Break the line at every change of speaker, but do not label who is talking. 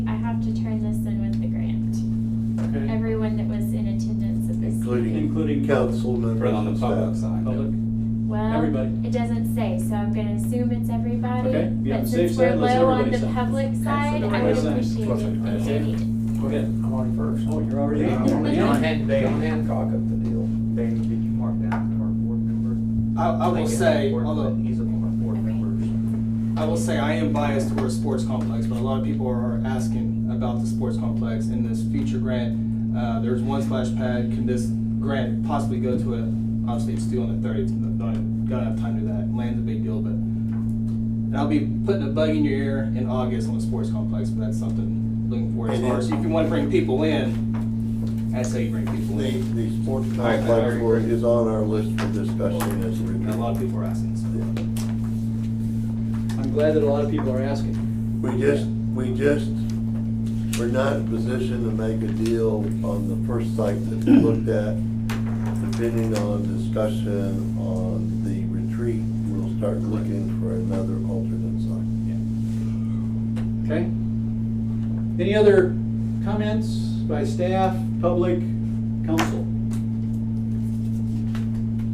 three council
For
members
on
and
the public
staff.
side.
Public, Everybody.
Well, it doesn't say, so I'm gonna assume it's everybody.
Okay, yeah,
But
safe
since
side,
we're
let's
low on
everybody
the
say.
public side, I would
everybody say.
appreciate
Let's
it if
say.
you did.
go ahead.
I'm on first.
Oh, you're already
Yeah, I'm
on.
already
Yeah.
on.
Han- John Hancock up the deal.
Dave, did you mark down our board member?
I, I will
think it's
say,
important
although,
that He's a former board member.
I will say I am biased towards sports complex, but a lot of people are asking about the sports complex in this future grant. Uh, there's one splash pad, can this grant possibly go to it? Obviously, it's due on the thirtieth, don't, don't have time to do that, land's a big deal, but. And I'll be putting a bug in your ear in August on the sports complex, but that's something looking forward to. As far as if you wanna bring people in, that's how you bring people
The,
in.
the sports
I
complex
agree.
for- is on our list for discussion as we.
And a lot of people are asking, so.
I'm glad that a lot of people are asking.
We just, we just, we're not in position to make a deal on the first site that we looked at. Depending on discussion on the retreat, we'll start looking for another alternate site.
Okay? Any other comments by staff, public, council?